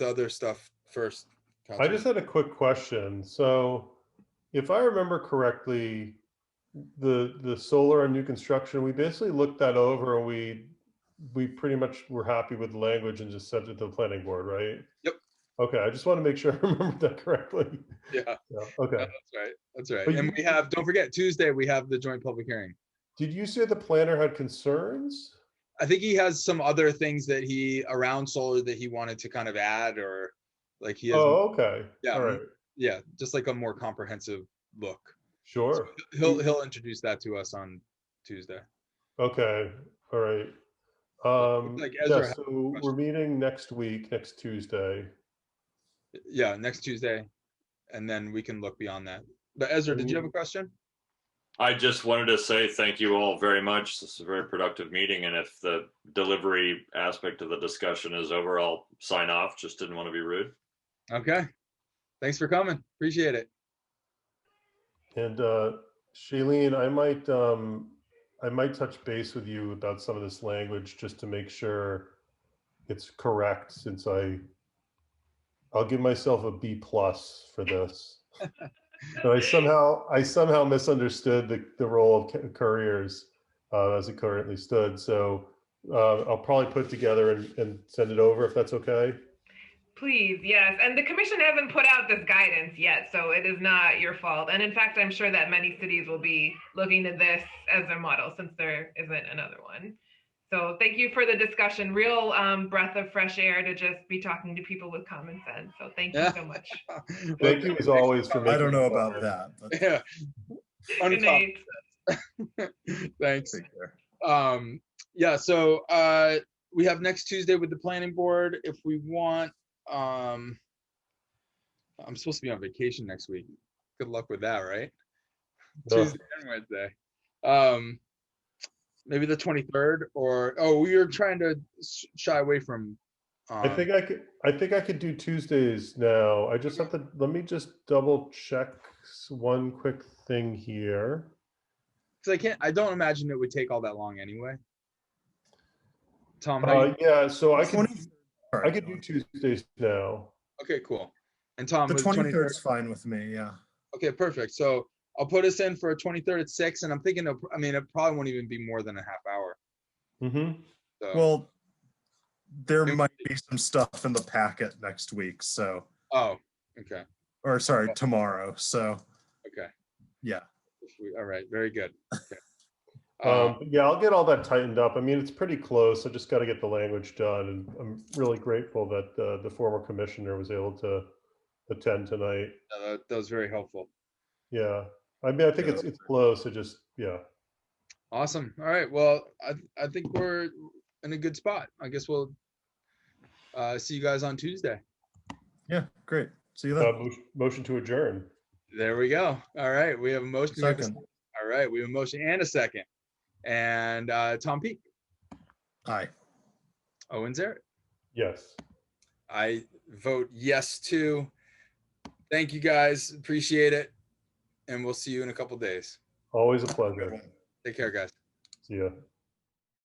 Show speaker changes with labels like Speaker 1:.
Speaker 1: the other stuff first.
Speaker 2: I just had a quick question. So if I remember correctly, the, the solar on new construction, we basically looked that over and we, we pretty much were happy with the language and just sent it to the planning board, right?
Speaker 1: Yep.
Speaker 2: Okay, I just want to make sure I remembered that correctly.
Speaker 1: Councilman. Yeah,
Speaker 2: Yeah, Okay.
Speaker 1: that's right. That's right.
Speaker 2: But
Speaker 1: And
Speaker 2: you-
Speaker 1: we have, don't forget, Tuesday, we have the joint public hearing.
Speaker 2: Did you say the planner had concerns?
Speaker 1: I think he has some other things that he around solar that he wanted to kind of add or like he has,
Speaker 2: Oh, okay.
Speaker 1: Yeah,
Speaker 2: All right,
Speaker 1: yeah, just like a more comprehensive look.
Speaker 2: sure.
Speaker 1: He'll, he'll introduce that to us on Tuesday.
Speaker 2: Okay, all right. Um,
Speaker 1: like Ezra
Speaker 2: yeah,
Speaker 1: had
Speaker 2: so we're
Speaker 1: question.
Speaker 2: meeting next week, next Tuesday.
Speaker 1: Yeah, next Tuesday. And then we can look beyond that. But Ezra, did you have a question?
Speaker 3: I just wanted to say thank you all very much. This is a very productive meeting, and if the delivery aspect of the discussion is over, I'll sign off. Just didn't want to be rude.
Speaker 1: Okay. Thanks for coming. Appreciate it.
Speaker 2: And uh, Shailene, I might, um, I might touch base with you about some of this language just to make sure it's correct since I, I'll give myself a B plus for this. But I somehow, I somehow misunderstood the, the role of ca- couriers uh, as it currently stood. So uh, I'll probably put it together and, and send it over if that's okay.
Speaker 4: Please, yes. And the commission hasn't put out this guidance yet, so it is not your fault. And in fact, I'm sure that many cities will be looking to this as their model since there isn't another one. So thank you for the discussion. Real um, breath of fresh air to just be talking to people with common sense. So thank you
Speaker 1: Yeah.
Speaker 4: so much.
Speaker 2: Thank you as always for making.
Speaker 5: I don't know about
Speaker 2: that.
Speaker 5: that. but-
Speaker 1: Yeah.
Speaker 4: Good
Speaker 1: Uncom-
Speaker 4: night.
Speaker 1: Thanks. Um, yeah, so uh, we have next Tuesday with the planning board if we want. Um, I'm supposed to be on vacation next week. Good luck with that, right?
Speaker 2: Ugh.
Speaker 1: Tuesday and Wednesday. Um, maybe the 23rd or oh, we are trying to s- shy away from. Um,
Speaker 2: I think I could, I think I could do Tuesdays now. I just have to, let me just double check s- one quick thing here.
Speaker 1: 'cause I can't. I don't imagine it would take all that long anyway. Tom, how
Speaker 2: Uh,
Speaker 1: you,
Speaker 2: yeah, so I could,
Speaker 5: 23rd
Speaker 2: I could do Tuesdays now.
Speaker 1: okay, cool. And Tom,
Speaker 5: The
Speaker 1: was
Speaker 5: twenty-third is fine with me, yeah.
Speaker 1: Okay, perfect. So I'll put us in for a twenty-third at six, and I'm thinking, of- I mean, it probably won't even be more than a half hour.
Speaker 2: hmm
Speaker 1: So,
Speaker 5: Well, there
Speaker 1: It-
Speaker 5: might be some stuff in the packet next week, so,
Speaker 1: oh, okay,
Speaker 5: or
Speaker 2: Oh.
Speaker 5: sorry, tomorrow, so,
Speaker 1: okay.
Speaker 5: yeah.
Speaker 1: If we- All right, very good. Okay.
Speaker 2: Um,
Speaker 1: Um,
Speaker 2: but yeah, I'll get all that tightened up. I mean, it's pretty close. I just got to get the language done and I'm really grateful that, uh, the former commissioner was able to attend tonight.
Speaker 1: no, that- that was very helpful.
Speaker 2: Yeah, I mean, I think
Speaker 5: Yeah.
Speaker 2: it's, it's close. I just, yeah.
Speaker 1: Awesome. All right. Well, I, I think we're in a good spot. I guess we'll uh, see you guys on Tuesday.
Speaker 5: Yeah, great. See you
Speaker 2: Uh,
Speaker 5: then.
Speaker 2: mo- motion to adjourn.
Speaker 1: There we go. All right. We have a
Speaker 2: Uh,
Speaker 1: motion. We have a
Speaker 5: Second,
Speaker 1: second. All right. We have a motion and a second. And uh, Tom Peak,
Speaker 5: aye.
Speaker 1: Owen Zaret.
Speaker 2: Yes.
Speaker 1: I vote yes too. Thank you guys. Appreciate it. And we'll see you in a couple days.
Speaker 2: Always a pleasure.
Speaker 1: Take care, guys.
Speaker 2: See ya.